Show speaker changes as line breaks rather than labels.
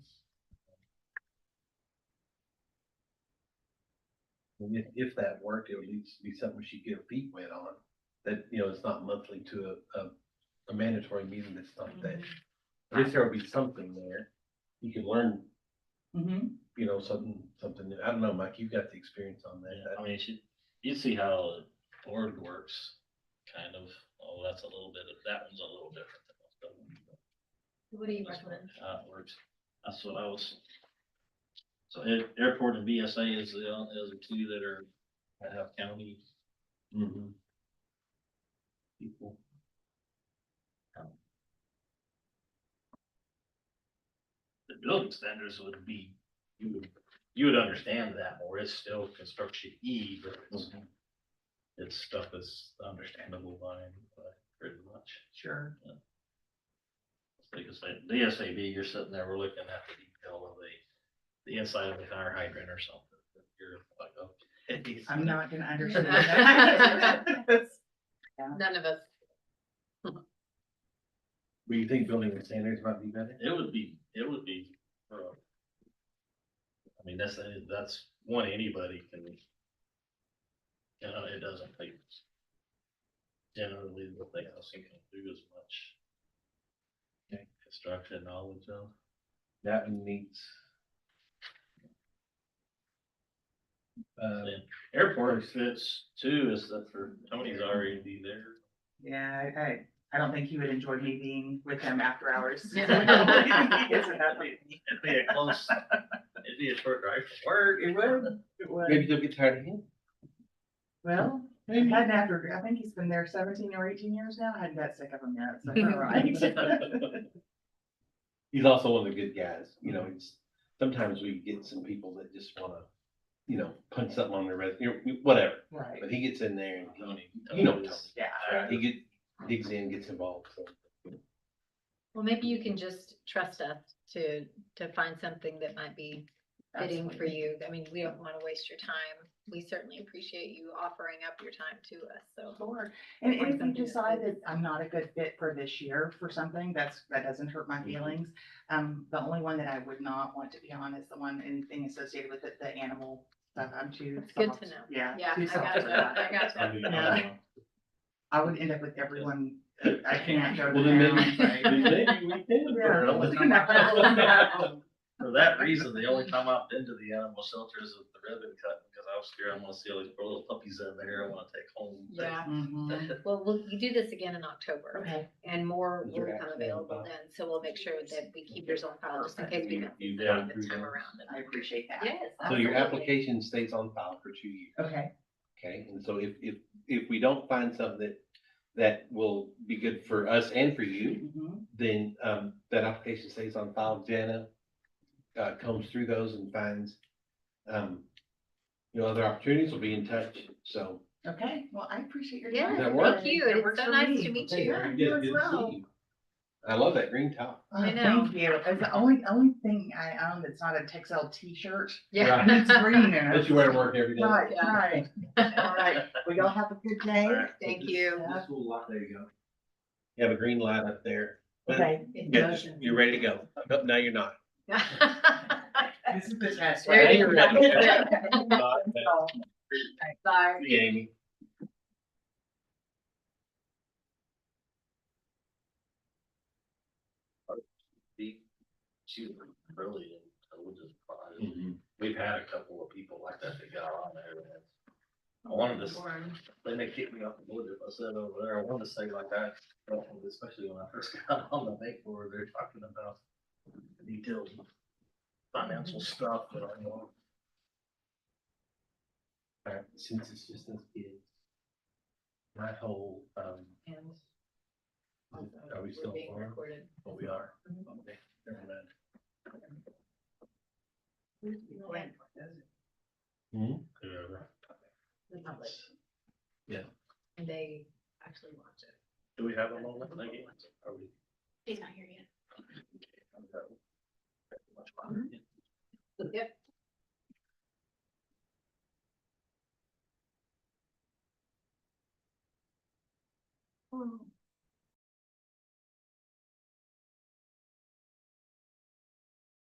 And If, if that worked, it would at least be something she could get her feet wet on, that, you know, it's not monthly to a, a, a mandatory meeting that's not that. At least there will be something there, you can learn,
Mm-hmm.
you know, something, something, new. I don't know, Mike, you've got the experience on that.
I mean, she, you see how the board works, kind of, oh, that's a little bit, of- that one's a little different than most of them.
What do you
That's
recommend?
How it works, that's what I was. So air- airport and BSA is the, on- is the two that are, that have county
Mhm.
people. Um, The building standards would be, you would, you would understand that more, it's still construction E, but it's. It's stuff that's understandable by, by pretty much.
Sure.
Because that DSAB, you're sitting there, we're looking at the detail of the, the inside of the fire hydrant or something. but You're like, oh.
I'm not gonna understand that.
None of us.
But you think building the standards might be better?
It would be, it would be. uh, I mean, that's, that's one anybody can. You know, it doesn't take. Generally, what they also can do as much.
Okay.
Construction knowledge of.
That one needs. Uh,
Airport fits too, is that for, Tony's already there.
Yeah, I, I, I don't think he would enjoy me being with him after hours. He gets in that way.
It'd be a close, it'd be a short drive from work.
It would, it would.
maybe they'll get tired of him.
Well, I've had an after, I think he's been there seventeen or eighteen years now, I hadn't got sick of him yet, so you're right.
He's also one of the good guys, you know, it's, sometimes we get some people that just wanna, you know, punch something on their resume, you know, whatever.
Right,
But he gets in there and he-
Tony.
You know
Tony's-
yeah.
he get, digs in, gets involved, so.
Well, maybe you can just trust us to, to find something that might be fitting for
absolutely.
you. I mean, we don't want to waste your time. We certainly appreciate you offering up your time to us, so.
Sure. And
Or
and if
something
you
that
decide that
fits.
I'm not a good fit for this year for something, that's, that doesn't hurt my feelings. Um, the only one that I would not want to be on is the one, anything associated with it, the animal stuff, I'm too.
It's good
soft.
to know.
Yeah.
Yeah,
too
I
soft
got
for
you.
that.
I got you.
uh,
Yeah. I would end up with everyone, I can't go
Well, then
to
maybe-
town, right?
then maybe we can burn
Yeah.
them.
For that reason, the only time I've been to the animal shelter is with the ribbon cut, because I was scared, I wanna see all these poor little puppies out there, I wanna take home.
Yeah,
Mm-hmm.
Mhm.
well, we'll, you do this again in October
Okay,
and more
Is there
will become
actually a
available
bot?
then, so we'll make sure that we keep yours on file just in case we don't.
You've
see
gone
something
through
This time
those.
around.
I appreciate that.
Yes.
So your
absolutely.
application stays on file for two years,
Okay,
okay? And so if, if, if we don't find something that, that will be good for us and for you,
Mhm.
then, um, that application stays on file. Jana, uh, combs through those and finds, um, you know, other opportunities will be in touch, so.
okay, well, I appreciate your.
Yeah,
time.
Does that work?
thank you.
That
and It's
works
so
for
nice
me.
to meet
Okay,
you.
very
you
good.
as
Good to see
well.
you. I love that green top.
Oh,
I know.
Thank you. It's the only, only thing I own that's not a Texel t-shirt.
Yeah.
It's green and
That you wear to work every day.
Right,
Yeah.
right. All right. We all have a good day.
Alright.
Thank you.
This little light, there you go. You have a green light up there.
Okay.
Yeah, You're ready to go. No, No, you're not.
This is the test.
There
right?
you
Oh,
Bye.
Yeah, Amy.
She was really, I was just surprised. We've had a couple of people like that that got on there. and it's- I wanted to, s- then they kicked me off the board if I said over there, I wanted to say like that, especially when I first got on the bank board, they're talking about the details of financial stuff, but I know.
All right, Uh, Since it's just us kids. My whole, um, are we still
Being
on?
recorded.
What we are.
Mhm.
Okay, never mind.
The public.
Yeah.
And they actually watch it.
Do we have a moment, Nikki? Are we?
He's not here yet.
I'm done. Much longer.